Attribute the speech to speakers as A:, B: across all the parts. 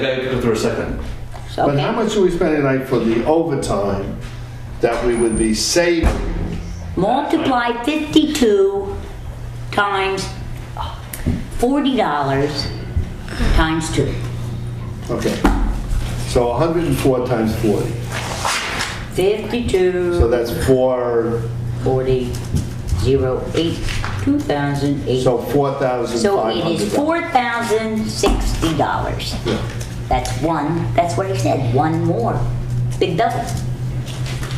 A: gotta go through a second.
B: But how
C: Okay,
B: much are we spending like for the overtime that we would be saving?
C: multiply 52 times $40 times two,
B: Okay. So 104 times 40.
C: 52,
B: So that's four,
C: 40, 0, 8, 2008.
B: so
C: So it is
B: $4,500.
C: $4,060.
B: Yeah.
C: That's one, that's what he said, one more. Big double.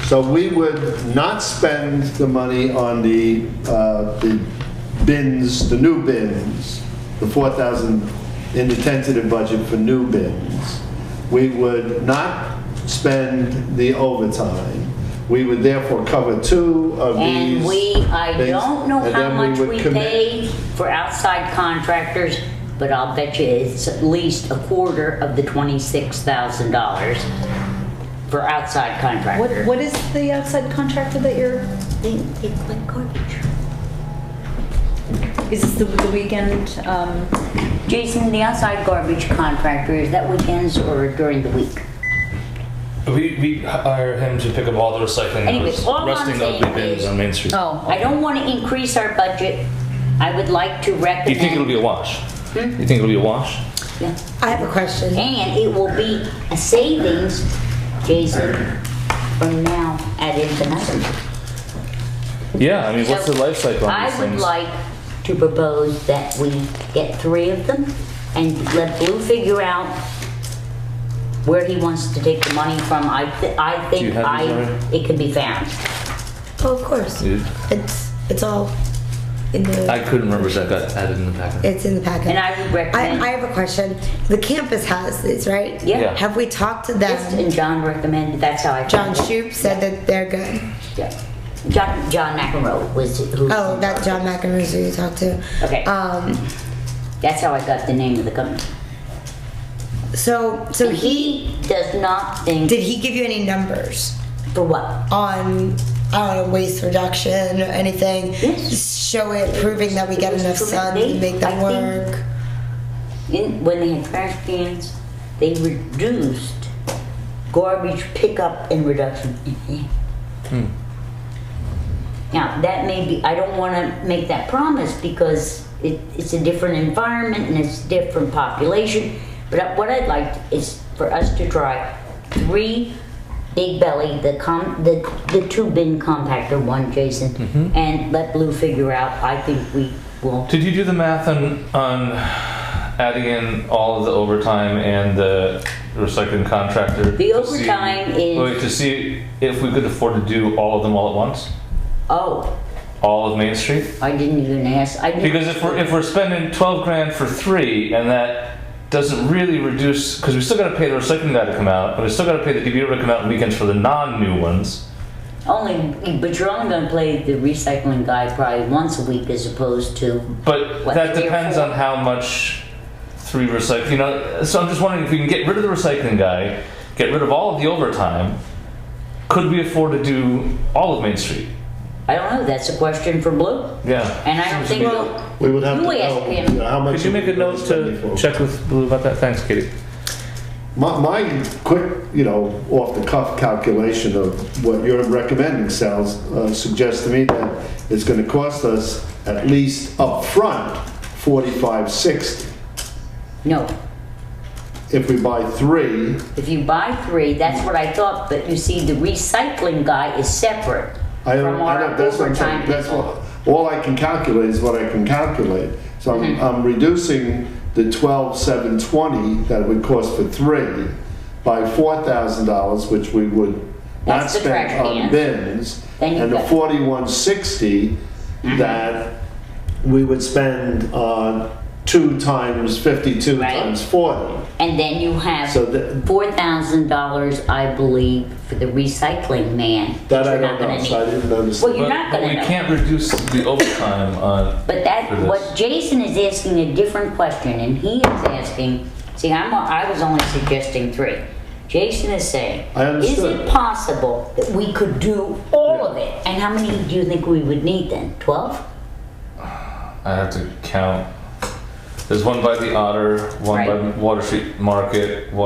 B: So we would not spend the money on the, uh, the bins, the new bins, the 4,000 in the tentative budget for new bins. We would not spend the overtime. We would therefore cover two of these.
C: And we, I
B: things,
C: don't know
B: and
C: how
B: then we
C: much
B: would
C: we
B: commit-
C: paid for outside contractors, but I'll bet you it's at least a quarter of the twenty-six thousand dollars for outside
D: What,
C: contractor.
D: what is the outside contractor that you're,
C: They, they collect garbage.
D: is this the, the weekend, um,
C: Jason, the outside garbage contractor, is that weekends or during the week?
E: We, we hire him to pick up all the recycling
C: Anyway,
E: that was
C: all I'm
E: rusting
C: saying
E: ugly bins
C: is-
E: on Main Street.
D: oh,
C: I don't wanna increase our budget. I would like to recommend.
E: Do you think it'll be a wash?
C: Hmm?
E: You think it'll be a wash?
C: Yeah.
F: I have a question.
C: And it will be a savings, Jason, from now at infinitum.
E: Yeah, I mean, what's the life cycle on these
C: I would
E: things?
C: like to propose that we get three of them and let Blue figure out where he wants to take the money from. I, thi- I
E: you
C: think
E: have
C: I,
E: these already?
C: it can be found.
F: Oh, of course.
E: Dude,
F: It's it's all in the
E: I couldn't remember if that got added in the packet.
F: it's in the packet.
C: And I would recommend-
F: I, I have a question. The campus has these, right?
C: Yeah.
E: Yeah.
F: Have we talked to them?
C: Yes, And John recommended, that's how I.
F: John Shoup said that they're good.
C: Yeah. John, John McEnroe was who.
F: Oh, that John McEnroe's who you talked to.
C: Okay.
F: Um.
C: That's how I got the name of the company.
F: So so he
C: He does not think,
F: did he give you any numbers
C: for what?
F: on I don't know waste reduction or anything?
C: Yes.
F: Show it, proving that we
C: It
F: get
C: was
F: enough
C: proven-
F: sun to
C: they-
F: make
C: I
F: them
C: think-
F: work.
C: In, when they had trash cans, they reduced garbage pickup and reduction. Now, that may be, I don't wanna make that promise because it, it's a different environment and it's different population. But what I'd like is for us to try three Big Belly, the com, the, the two bin compactor one, Jason, and let Blue figure out, I think we will.
E: Did you do the math on, on adding in all of the overtime and the recycling contractor?
C: The
E: to see-
C: overtime is-
E: Wait, to see if we could afford to do all of them all at once?
C: Oh,
E: All of Main Street?
C: I didn't even ask, I didn't.
E: Because if we're if we're spending twelve grand for three, and that doesn't really reduce, because we still got to pay the recycling guy to come out, and we still got to pay the DBO to come out on weekends for the non-new ones.
C: Only, but you're only gonna play the recycling guy probably once a week as opposed to,
E: But
C: What,
E: that
C: three or
E: depends
C: four?
E: on how much three recycling. You know, so I'm just wondering if we can get rid of the recycling guy, get rid of all of the overtime. Could we afford to do all of Main Street?
C: I don't know, that's a question for Blue.
E: Yeah.
C: And I don't think,
B: We would have to
C: You asked
B: know
C: him.
B: you know, how much.
E: Could you make a
B: we're
E: note
B: spending
E: to
B: for.
E: check with Blue about that? Thanks, Katie.
B: My, my quick, you know, off the cuff calculation of what you're recommending, Sal, uh, suggests to me that it's gonna cost us at least upfront forty-five, sixty.
C: no,
B: If we buy three,
C: if you buy three, that's what I thought, but you see, the recycling guy is separate
B: I don't,
C: from
B: I
C: our
B: don't, that's what I'm saying,
C: overtime
B: that's
C: people. Mm-hmm.
B: what, all I can calculate is what I can calculate. So I'm, I'm reducing the twelve, seven, twenty that it would cost for three by four thousand dollars, which we would not
C: That's the
B: spend
C: trash
B: on
C: cans.
B: bins.
C: Then Mm-hmm. you've
B: And the
C: got-
B: forty-one sixty that we would spend on two times fifty-two
C: Right.
B: times forty.
C: And then you have
B: So that,
C: four thousand dollars, I believe, for the recycling man.
B: that I
C: you're not
B: don't know,
C: gonna
B: so I
C: need.
B: didn't
C: Well,
B: understand.
C: you're
E: But-
C: not
E: but
C: gonna
E: we
C: know.
E: can't reduce the overtime on.
C: But that,
E: for this.
C: what Jason is asking a different question, and he is asking, see, I'm, I was only suggesting three. Jason is saying,
B: I
C: is it
B: understood.
C: possible that we could do all of it? And how many do you think we would need then? Twelve?
E: I have to count. There's one by the Otter, one by
C: Right.
E: Water Street Market, one